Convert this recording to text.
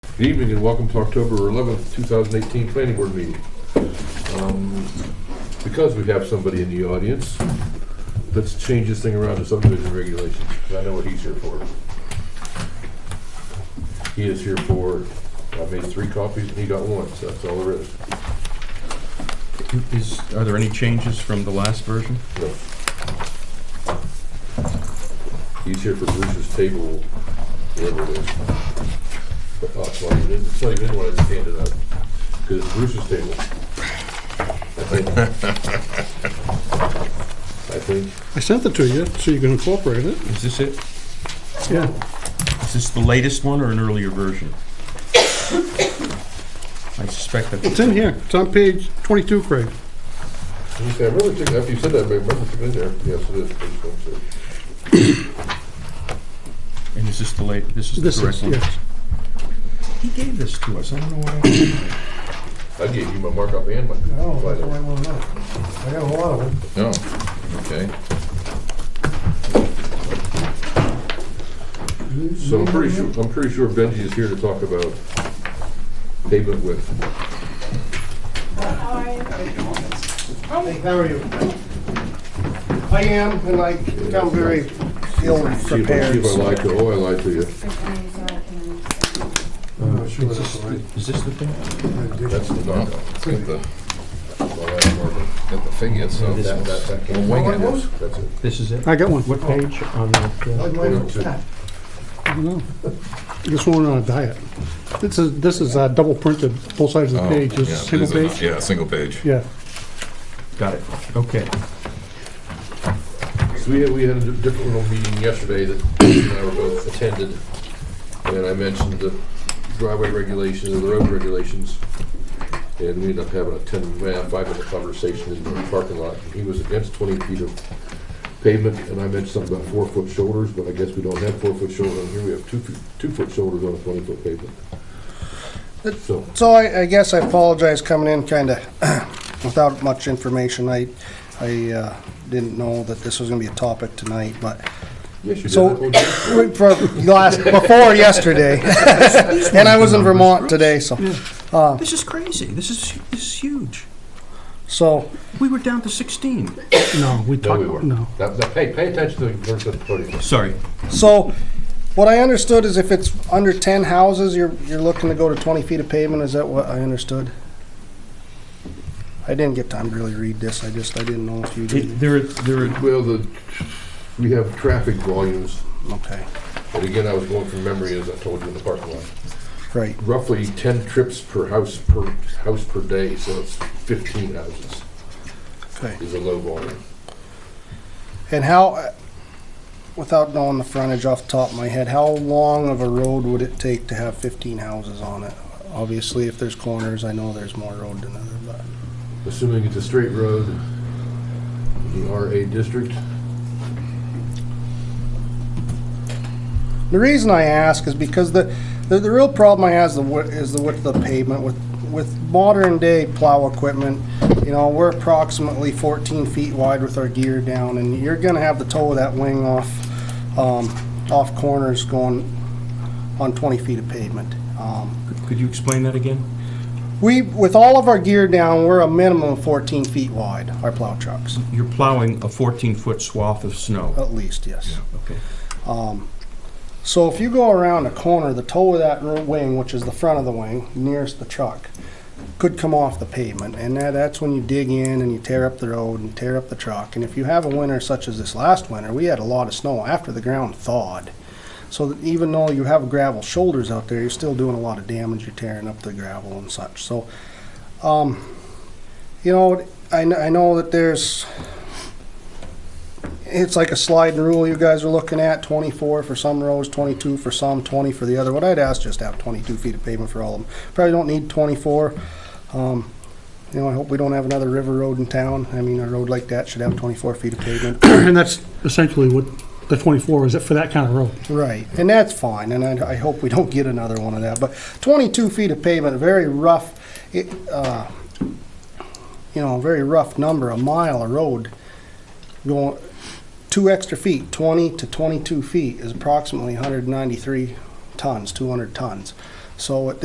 Good evening and welcome to October 11th, 2018 Planning Board meeting. Um, Because we have somebody in the audience, let's change this thing around to subdivision regulations, 'cause I know what he's here for. He is here for, I made three copies and he got one, so that's all there is. Is, are there any changes from the last version? No. He's here for Bruce's table, whatever it is. Oh, it's not even, it's not even in when I scanned it up, because it's Bruce's table. I think, I sent it to you, so you can incorporate it. Is this it? Yeah. Is this the latest one or an earlier version? I suspect that. It's in here. It's on page 22, Craig. I think, I remember, thinking- after you said that, I remember thinking in there, yes, it is. page one, two. And is this the late, this is the This is, correct one? yes. He gave this to us, I don't know why. I gave you my markup and my. No, Oh, that's the right one, no. I got a lot of them. No, okay. So I'm pretty sure, I'm pretty sure Benji is here to talk about pavement width. Hey, how are you? I am, and I am very ill See if I- see prepared. if I lied to, oh, I lied to you. Is this the- Is this the thing? That's the markup. Get the, get the figure, so This That- is- that- that we'll can't- wing it. That's it. This is it? Oh, I got one. What page on that? I don't know. This one on a diet. This is, this is uh, double printed, both sides of the Oh, page. Is yeah, it single it is a- page? Yeah, single page. Yeah. Got it, okay. So we had, we had a di- different little meeting yesterday that Bruce and I were both attended. And I mentioned the driveway regulations and the road regulations. And we ended up having a ten, well, five minute conversation in the parking lot. He was against twenty feet of pavement and I mentioned something about four foot shoulders, but I guess we don't have four foot shoulders on here. We have two, feet- two foot shoulders on a twenty foot pavement. So, So I, I guess I apologize coming in kinda without much information. I, I uh, didn't know that this was gonna be a topic tonight, but yes, you did. So- that whole day. for last, before yesterday. And I was in Vermont today, so, Uh, This is crazy, this is, this is huge. so, We were down to sixteen. No, we No, talked, we weren't. no. That- that- Hey, pay attention to the person at the podium. Sorry, So, what I understood is if it's under ten houses, you're, you're looking to go to twenty feet of pavement, is that what I understood? I didn't get time to really read this, I just, I didn't know if you It- did, there, are- there, are- Well, the, we have traffic volumes, okay, and again, I was going from memory, as I told you in the parking lot. right, Roughly ten trips per house, per house per day, so it's fifteen houses okay. is a low volume. And how, without knowing the frontage off the top of my head, how long of a road would it take to have fifteen houses on it? Obviously, if there's corners, I know there's more road than other, but. Assuming it's a straight road, the RA district, The reason I ask is because the, the, the real problem I have is the, wi- is the width of the pavement with, with modern day plow equipment. You know, we're approximately fourteen feet wide with our gear down and you're gonna have the toe of that wing off, um, off corners going on twenty feet of pavement. Um, could you explain that again? We, with all of our gear down, we're a minimum of fourteen feet wide, our plow trucks, You're plowing a fourteen-foot swath of snow. at least, yes. Okay. So if you go around a corner, the toe of that ro- wing, which is the front of the wing, nearest the truck, could come off the pavement, and that, that's when you dig in and you tear up the road and tear up the truck. And if you have a winter such as this last winter, we had a lot of snow after the ground thawed. So that even though you have gravel shoulders out there, you're still doing a lot of damage. You're tearing up the gravel and such. So, um, you know, I, kn- I know that there's it's like a sliding rule you guys are looking at, 24 for some rows, 22 for some, 20 for the other. What I'd ask, just have 22 feet of pavement for all of them. Probably don't need 24. Um, You know, I hope we don't have another river road in town. I mean, a road like that should have 24 feet of pavement. And that's essentially what the 24 is, for that kind of road. Right, and that's fine, and I, I hope we don't get another one of that, but twenty-two feet of pavement, very rough, it, uh, you know, very rough number, a mile of road going, two extra feet, twenty to twenty-two feet is approximately hundred and ninety-three tons, two hundred tons. So it